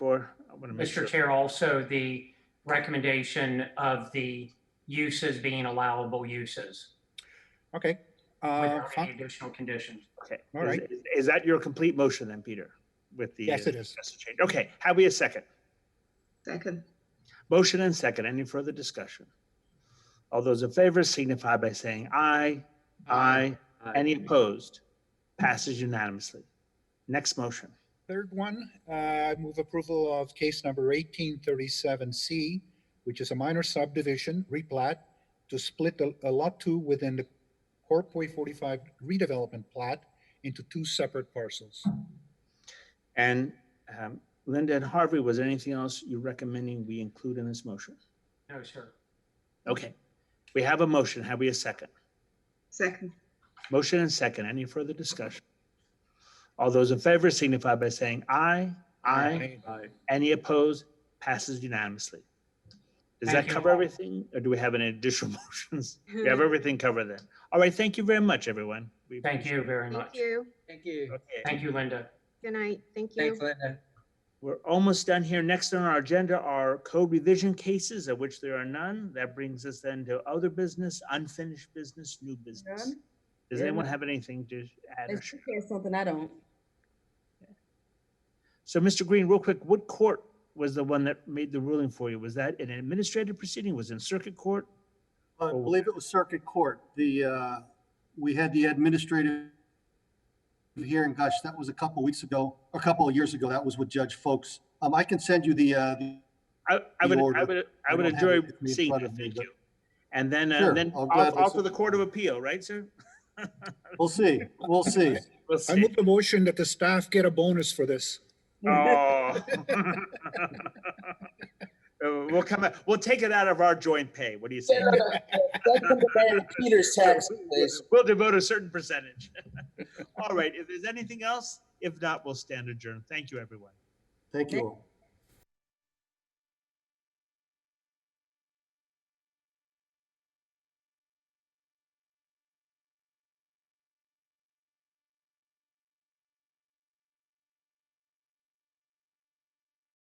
Mr. Chair, also the recommendation of the uses being allowable uses Okay, uh, without fine. any additional conditions. Okay. All Is- right. is- Is that your complete motion then, Peter? With the. yes, it is. suggested change? Okay, have we a second? Second. Motion and second. Any further discussion? All those in favor signify by saying aye. Aye. Any opposed? Passes unanimously. Next motion. Third one, uh, move approval of case number eighteen thirty-seven C, which is a minor subdivision replat to split a a lot two within the Corpway forty-five redevelopment plat into two separate parcels. And um, Linda and Harvey, was there anything else you're recommending we include in this motion? No, sir. Okay, we have a motion. Have we a second? Second. Motion and second. Any further discussion? All those in favor signify by saying aye. Aye. Any opposed? Passes unanimously. Does Thank that you. cover everything or do we have any additional motions? We have everything covered then. All right, thank you very much, everyone. We Thank appreciate you very Thank much. you. Thank you. it. Okay, Thank you, Linda. Good night. Thank you. Thanks, Linda. We're almost done here. Next on our agenda are code revision cases of which there are none. That brings us then to other business, unfinished business, new business. None? Does Yeah. anyone have anything to add? or Unless share? you hear something I don't. So, Mr. Green, real quick, what court was the one that made the ruling for you? Was that an administrative proceeding? Was it in circuit court? I Or- believe it was Circuit Court. The, uh, we had the administrative hearing, gosh, that was a couple weeks ago, a couple of years ago. That was with Judge Folks. Um, I can send you the, uh, the- I, I The would, I order. would, I I would don't have it enjoy with me in seeing front that. of me, Thank but- you. And then, uh, Sure, then I'll off, gladly off to sub- the Court of Appeal, right, sir? we'll see, we'll see. We'll I see. move the motion that the staff get a bonus for this. Oh. Uh, We'll come, out- we'll take it out of our joint pay. What do you say? That's what the man in Peter's tax, please. We'll devote a certain percentage. All right, if there's anything else, if not, we'll stand adjourned. Thank you, everyone. Thank you all.